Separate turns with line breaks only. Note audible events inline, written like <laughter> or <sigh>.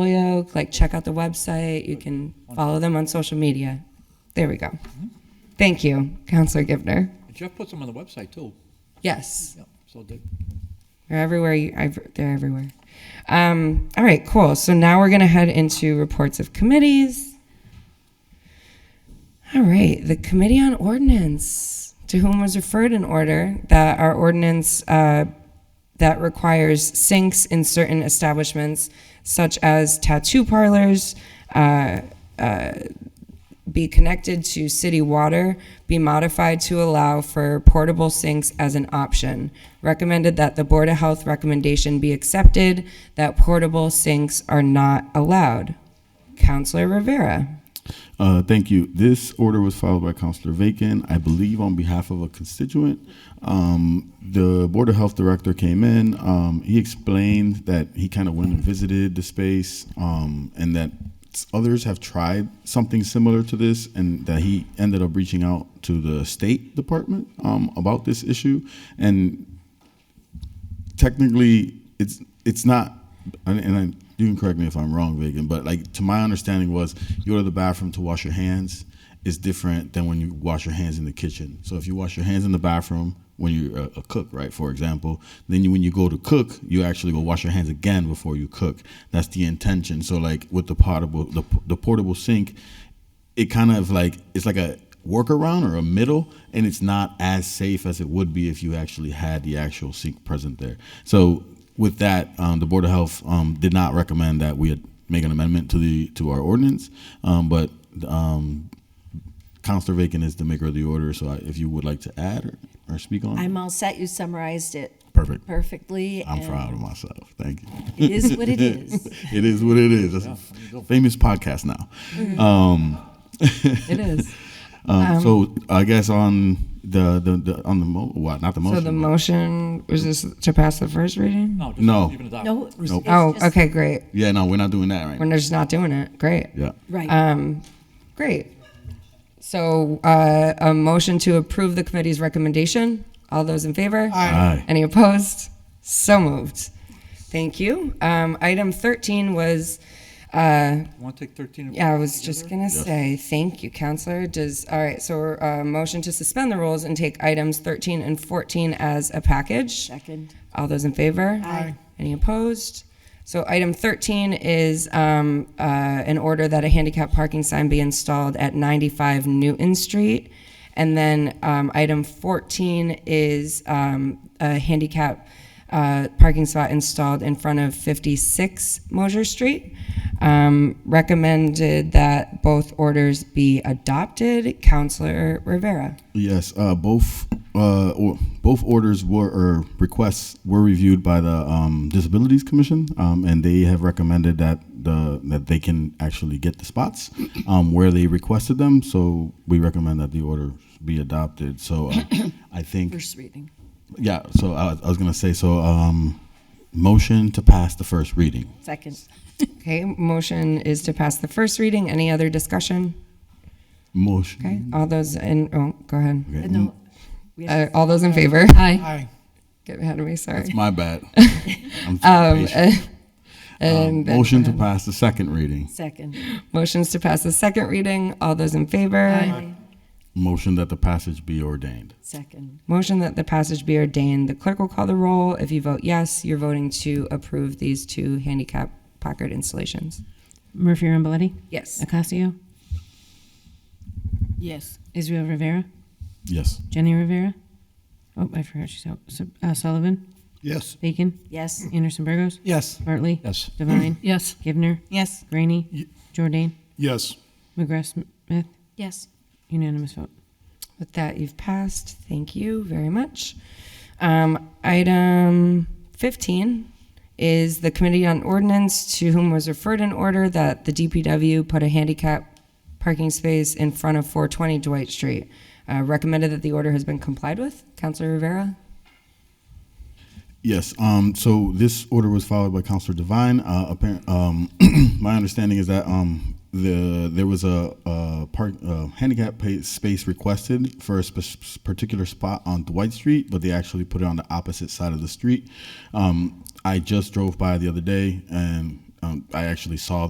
Holyoke, like check out the website. You can follow them on social media. There we go. Thank you, Counselor Givner.
Jeff puts them on the website too.
Yes,
Yeah, so did.
they're everywhere. You, I've, they're everywhere. Um, all right, cool. So now we're going to head into reports of committees. All right, the Committee on Ordinance, to whom was referred an order that our ordinance uh, that requires sinks in certain establishments, such as tattoo parlors, uh, be connected to city water be modified to allow for portable sinks as an option. Recommended that the Board of Health recommendation be accepted, that portable sinks are not allowed. Counselor Rivera.
Uh, Thank you. This order was filed by Councilor Vacan, I believe on behalf of a constituent. Um, The Board of Health Director came in. um, He explained that he kind of went and visited the space um, and that others have tried something similar to this and that he ended up reaching out to the State Department um, about this issue. And technically it's it's not and, and I, you can correct me if i'm wrong vegan but like to my understanding was you go to the bathroom to wash your hands is different than when you wash your hands in the kitchen so if you wash your hands in the bathroom when you're a, a cook right for example then you, when you go to cook you actually go wash your hands again before you cook that's the intention so like with the portable the, the portable sink it kind of like it's like a workaround or a middle and it's not as safe as it would be if you actually had the actual sink present there so with that um, the board of health um, did not recommend that we had make an amendment to the to our ordinance um, but um, Counselor Vacan is the maker of the order, so I, if you would like to add or, or speak on, it.
I'm all set. You summarized it
perfect.
perfectly.
I'm
and
proud of myself. Thank you.
It
<laughs>
is what it is.
it is what it is. That's a famous podcast now.
It is.
Um, so I guess on the, the, the on the mo- what not the motion.
So the
but-
motion was this to pass the first reading?
No, just
No.
even adopt.
No, it's
Nope.
Oh,
just-
okay, great.
Yeah, no, we're not doing that right.
We're
now.
just not doing it. Great.
Yeah.
Right.
Um, great. So, uh, a motion to approve the committee's recommendation. All those in favor?
Aye.
Any opposed? So moved. Thank you. Um, item thirteen was, uh,
Want to take 13? and
yeah, I
14
was just
together?
gonna say, thank you, Counselor. Does, all right, so, uh, motion to suspend the rules and take items thirteen and fourteen as a package.
Second.
All those in favor?
Aye.
Any opposed? So item 13 is um, uh, an order that a handicap parking sign be installed at 95 Newton Street. And then um, item 14 is um, a handicap uh, parking spot installed in front of 56 Mosier Street. Um, Recommended that both orders be adopted. Counselor Rivera.
Yes. Uh, both uh, or, both orders were or requests were reviewed by the um, Disabilities Commission, um, and they have recommended that the that they can actually get the spots um, where they requested them. So we recommend that the order be adopted. So uh, I think
First reading.
yeah. So I, I was gonna say so. Um, motion to pass the first reading.
Second.
Okay, motion is to pass the first reading. Any other discussion?
Motion.
Okay, all those in, oh, go ahead.
Okay,
No. we
Uh,
have-
all those in favor? Aye. Aye. Get ahead of me, sorry.
It's
<laughs>
my bad. I'm so
Um,
patient. Um,
<laughs> and
motion to pass the second
Uh,
reading.
Second.
motions to pass the second reading. All those in favor?
Motion that the passage be ordained.
Second.
Motion that the passage be ordained. The clerk will call the roll. If you vote yes, you're voting to approve these two handicap placard installations.
Murphy Ramboletti,
Yes.
Acasio,
Yes.
Israel Rivera,
Yes.
Jenny Rivera. Oh, I forgot she's out. Su- uh, Sullivan,
Yes.
Bacon,
Yes.
Anderson Burgos,
Yes.
Bartley,
Yes.
Divine,
Yes.
Givner,
Yes.
Graney,
Ye-
Jordan,
Yes.
McGrath Smith.
Yes.
Unanimous vote.
With that, you've passed. Thank you very much. Um, item 15 is the Committee on Ordinance, to whom was referred an order that the DPW put a handicap parking space in front of 420 Dwight Street. Uh, recommended that the order has been complied with. Councilor Rivera?
Yes. Um, so this order was followed by Counselor Devine. Uh, apparent, um, <clears throat> my understanding is that um, the there was a, a park uh, handicap pa space requested for a sp- particular spot on Dwight Street, but they actually put it on the opposite side of the street. Um, I just drove by the other day and um, I actually saw